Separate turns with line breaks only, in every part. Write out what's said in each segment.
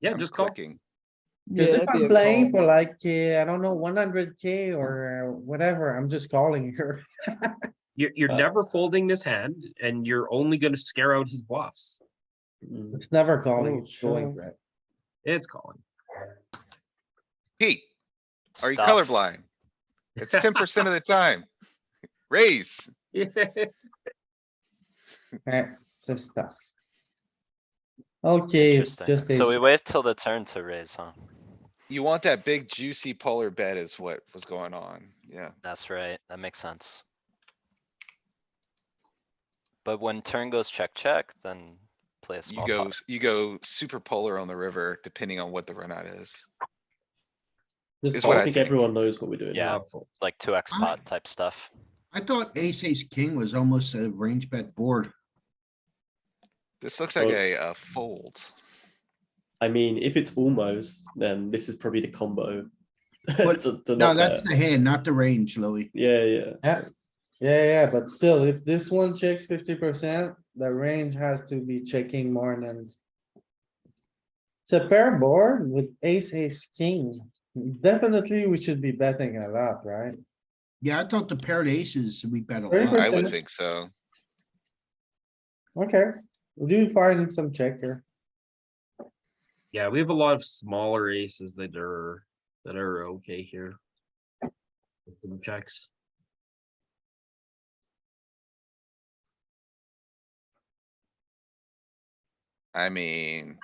Yeah,
I'm
just call.
clicking.
Cause
Yeah,
if I'm playing for like, uh, I don't know, one hundred K or uh, whatever, I'm just calling here.
You're, you're
Uh,
never folding this hand and you're only gonna scare out his bluffs.
It's never calling,
Oh,
it's going,
sure.
right?
It's calling.
Pete, are you
Stop.
colorblind? It's ten percent of the time. Raise.
Alright, Eh, it's just stuff. Okay, it's
Interesting.
just
So we
a,
wait till the turn to raise, huh?
You want that big juicy polar bet is what was going on. Yeah.
That's right, that makes sense. But when turn goes check, check, then play a
You
small
go,
pot.
s- you go super polar on the river depending on what the run out is.
This,
is what
I
I
think
think.
everyone knows what we're doing.
Yeah.
now.
Love fold.
Like two X
I-
Ah.
pot type stuff.
I thought ace, ace, king was almost a range bet board.
This looks like
Well-
a, uh fold.
I mean, if it's almost, then this is probably the combo.
But-
to- to
No,
not
that's
bet.
the hand, not the range, Louis.
Yeah, yeah.
yeah, yeah, yeah, but still, if this one checks fifty percent, the range has to be checking more than. It's a pair board with ace, ace, king. Definitely, we should be betting a lot, right?
Yeah, I thought the paired aces, we bet a
Very
I
percent.
lot.
would
Listen.
think so.
Okay, we do find some check here.
Yeah, we have a lot of smaller aces that are, that are okay here. Some Checks.
I mean.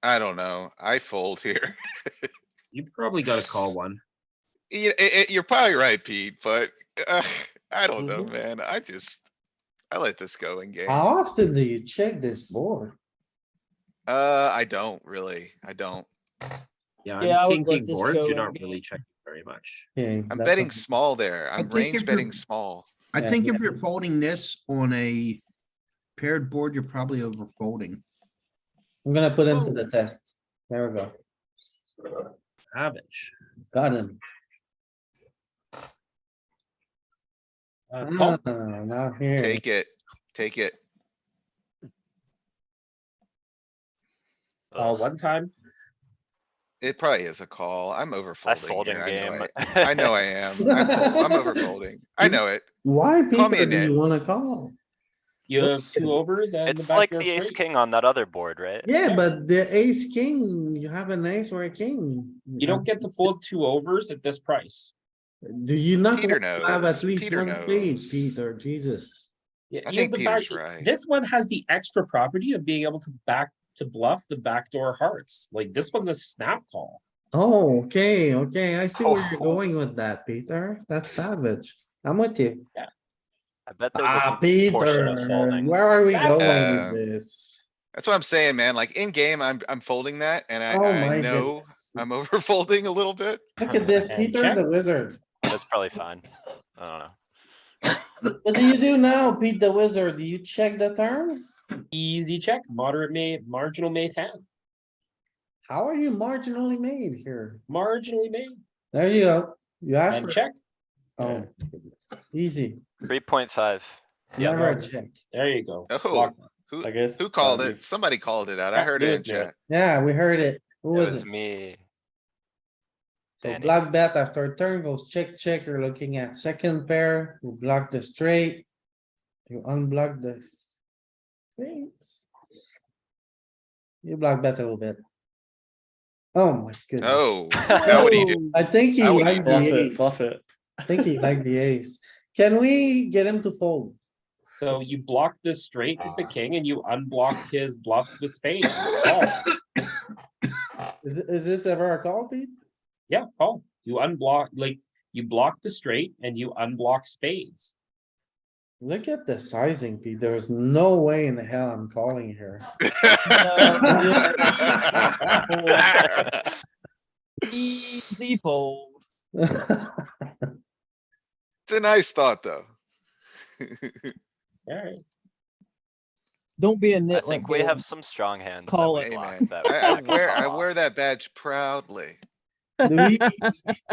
I don't know. I fold here.
You probably gotta call one.
You, are probably right, Pete, but uh, I don't know,
Mhm.
man. I just. I let this go in game.
How
Uh,
often do you check this board?
Uh, I don't really. I don't.
Yeah,
Yeah, I
I'm
would
king,
let
king
this
boards.
go
You're
in
not
game.
really checking very much.
Okay,
I'm
that's
betting
okay.
small there. I'm
think
range
if you're-
betting small.
I
Yeah,
think if
this
you're
is-
folding this on a paired board, you're probably over folding.
I'm gonna put him to the test. There we go.
Savage.
Got him.
Uh,
Hmm.
Ah,
call.
Not here.
Take it, take it.
Oh,
Uh,
Ugh,
one time.
It probably is a call. I'm over
I
folding
fold in
here. I know
game.
it. I know I am. I'm fol- I'm over folding. I know it.
Why
Call me
Peter
a
do
nit.
you wanna call?
You have
Yes.
two overs and the
It's like
backyard
the ace
straight.
king on that other board, right?
Yeah, but the ace, king, you have an ace or a king.
You
Mm-hmm.
don't get to fold two overs at this price.
Uh, Do you not
Peter
want to have
knows.
at least
Peter
one spade,
knows.
Peter, Jesus?
Yeah,
I
you have
think
the back-
Peter's right.
This one has the extra property of being able to back, to bluff the backdoor hearts. Like this one's a snap call.
Oh, okay, okay, I see where you're
Oh.
going with that, Peter. That's savage. I'm with you.
I bet there's
Ah,
a portion
Peter,
of folding.
where are we
Yeah.
going
Uh,
with this?
That's what I'm saying, man. Like in game, I'm, I'm folding that and I,
Oh my
I know
goodness.
I'm over folding a little bit.
Look at this,
And
Peter's
check.
a wizard.
That's probably fine. I don't know.
What do you do now, Pete the wizard? Do you check the turn?
Easy check, moderate made, marginal made hand,
How are you marginally made here?
marginally made,
There you go. You asked
and
for,
check.
oh, easy,
Three point five.
Yeah,
never a
no.
check.
There you go.
Oh,
Block.
Who,
I guess.
who
uh,
called
we've-
it? Somebody called it out. I
Yeah,
heard it in
Lewis knew it.
chat.
Yeah, we heard it. Who
It
was
was
it?
me.
So
Danny.
block bet after turn goes check, check. You're looking at second pair. You block the straight. You unblock the things. You block bet a little bit. Oh my goodness.
Oh, now what do you do?
I think he
Now what do
liked
Bluff
the
it,
ace.
bluff it.
I think he liked the ace. Can we get him to fold?
So you block this straight with the
Ah.
king and you unblock his bluffs with spades. Call.
Is, is this ever a call, Pete?
Yeah, call. You unblock, like, you block the straight and you unblock spades.
Look at the sizing, Pete. There's no way in the hell I'm calling here.
Easy fold.
It's a nice thought, though.
Alright,
Don't be a
I
nitwit.
think we
Bill.
um,
have some strong hands. that
Call
we
it.
block
Amen.
that
I, I
back
wear, I
door.
wear that badge proudly.
Do we-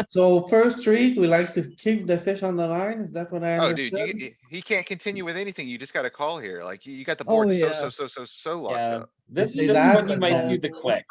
So first treat, we like to keep the fish on the line. Is that what I
Oh, dude, you,
understood?
you- he can't continue with anything. You just got a call here. Like you, you got the
Oh,
board so,
yeah.
so, so, so, so locked
yeah,
up.
this,
They
this is when
laugh
you
at
might
that.
do the click.